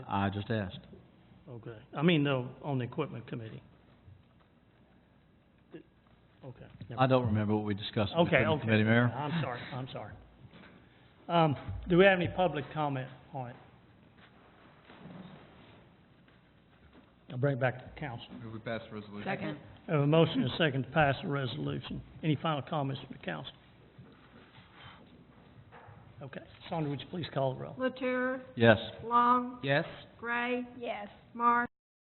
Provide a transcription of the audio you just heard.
I just asked. Okay, I mean, though, on the equipment committee. Okay. never- I don't remember what we discussed in the Okay, Equipment okay. committee, Mayor. I'm sorry, I'm sorry. Um, do we have any public comment on it? I'll bring it back to the council. Move we pass the resolution. Second. I have a motion and a second to pass the resolution. Any final comments from the council? Okay, Sandra, would you please call the roll? Latour, Yes. Long, Yes. Gray, Yes. Marsh,